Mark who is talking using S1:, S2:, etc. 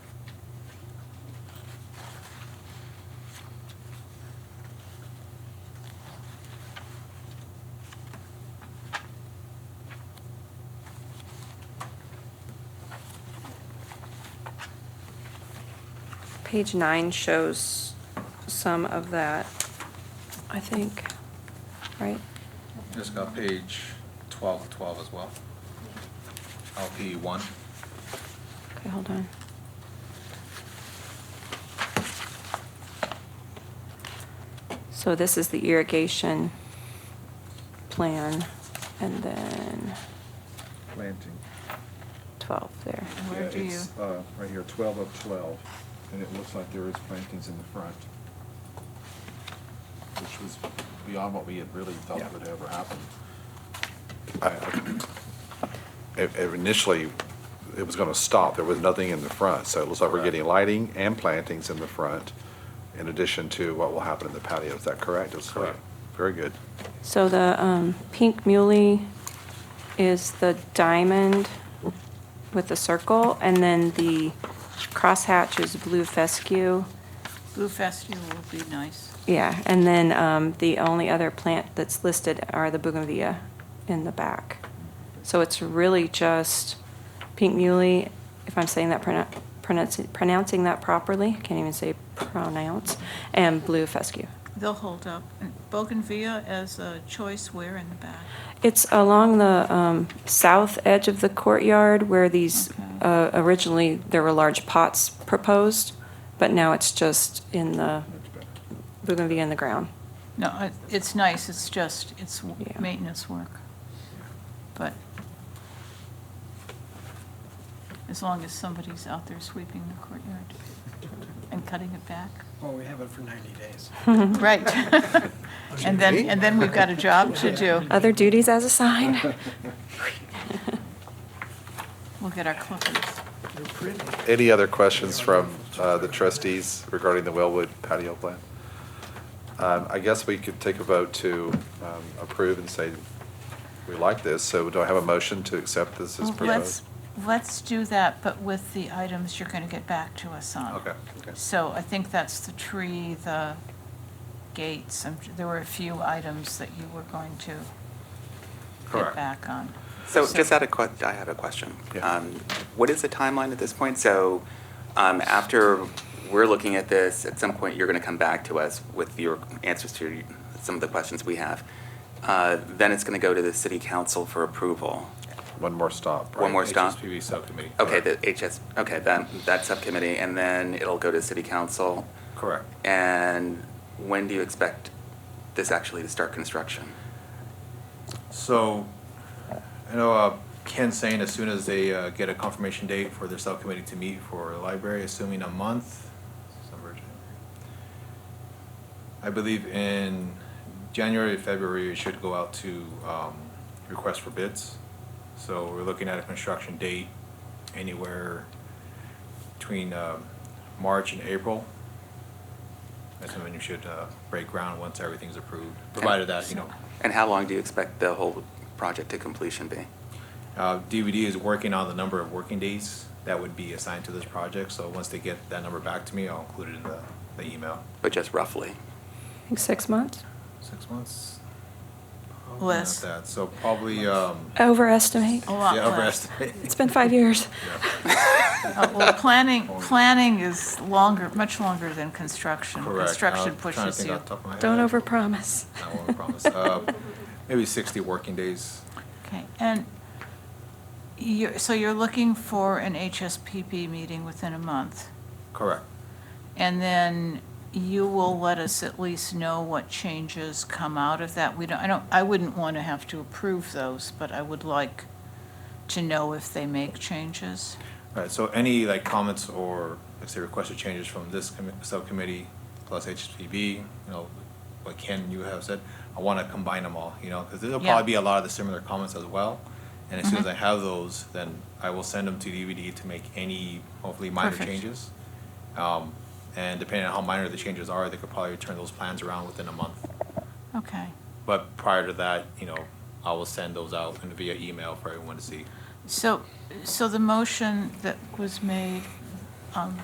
S1: page nine shows some of that, I think, right?
S2: It's got page twelve, twelve as well. LP one.
S1: Okay, hold on. So this is the irrigation plan, and then
S3: planting.
S1: 12 there.
S4: And where
S3: Yeah,
S4: do you-
S3: it's, uh, Right here, 12 of 12, and it looks like there is plantings in the front,
S2: Which was beyond what we had really thought
S3: Yeah.
S2: would ever happen.
S5: I- I- Initially, it was going to stop. There was nothing in the front. So it looks like we're
S2: Correct.
S5: getting lighting and plantings in the front in addition to what will happen in the patio. Is that correct? It's like-
S2: Correct.
S5: Very good.
S1: So the um, pink muley is the diamond with the circle, and then the crosshatch is blue fescue.
S4: Blue Fescue would be nice.
S1: Yeah, and then um, the only other plant that's listed are the bougainvillea in the back. So it's really just pink muley, if I'm saying that, pronou- pronouncing pronouncing that properly, can't even say pronounce, and blue fescue.
S4: They'll hold up. And Bougainvillea as a choice where in the back?
S1: It's along the um, south edge of the courtyard where these,
S4: Okay.
S1: uh, originally, there were large pots proposed, but now it's just in the
S3: much better.
S1: bougainvillea in the ground.
S4: No, it- it's nice, it's just, it's w-
S1: Yeah.
S4: maintenance work. But as long as somebody's out there sweeping the courtyard and cutting it back.
S6: Well, we have it for 90 days.
S4: Right. And then, and then we've got a job to do.
S1: Other duties as assigned?
S4: We'll get our clippers.
S6: They're pretty.
S5: Any other questions from uh, the trustees regarding the Wellwood patio plan? Um, I guess we could take a vote to um, approve and say we like this. So do I have a motion to accept this as
S4: Well,
S5: proposed?
S4: Let's, let's do that, but with the items you're going to get back to us on.
S5: Okay, okay.
S4: So I think that's the tree, the gates, and there were a few items that you were going to
S5: Correct.
S4: get back on.
S7: So just had a que, I have a question.
S5: Yeah.
S7: Um, What is the timeline at this point? So um, after we're looking at this, at some point, you're going to come back to us with your answers to some of the questions we have. Uh, Then it's going to go to the city council for approval.
S5: One more stop.
S7: One
S5: right?
S7: more stop?
S2: HSPB subcommittee.
S7: Okay, the HS, okay, that, that subcommittee, and then it'll go to city council.
S2: Correct.
S7: And when do you expect this actually to start construction?
S2: So, I know uh, Ken's saying as soon as they uh, get a confirmation date for their subcommittee to meet for the library, assuming a month, December, January. I believe in January, February, it should go out to um, request for bids. So we're looking at a construction date anywhere between um, March and April. That's when you should uh, break ground once everything's approved, provided that, you know,
S7: And how long do you expect the whole project to completion be?
S2: uh, DVD is working on the number of working days that would be assigned to this project, so once they get that number back to me, I'll include it in the, the email.
S7: But just roughly?
S1: I think six months?
S2: Six months? Probably Oh, not
S4: Less. Oh,
S2: that, So probably, um,
S1: Overestimate.
S4: A lot
S2: yeah,
S4: less.
S2: overestimate.
S1: It's been five years.
S4: Uh, Well, planning, planning is longer, much longer than construction.
S2: Correct.
S4: Construction
S2: I'm trying to
S4: pushes
S2: think
S4: you.
S2: off the top of my
S1: Don't
S2: head.
S1: overpromise.
S2: Not what I promised. Uh, Maybe sixty working days.
S4: Okay, and you, so you're looking for an HSPB meeting within a month?
S2: Correct.
S4: And then you will let us at least know what changes come out of that. We don't, I don't, I wouldn't want to have to approve those, but I would like to know if they make changes.
S2: All right, so any like comments or, let's say, requested changes from this commi- subcommittee plus HSPB, you know, what Ken, you have said, I want to combine them all, you know, because there'll
S4: Yeah. Mm-hmm.
S2: probably be a lot of the similar comments as well. And as soon as I have those, then I will send them to DVD to make any hopefully minor
S4: Perfect.
S2: changes. Um, And depending on how minor the changes are, they could probably turn those plans around within a month.
S4: Okay.
S2: But prior to that, you know, I will send those out and via email for everyone to see.
S4: So, so the motion that was made, um,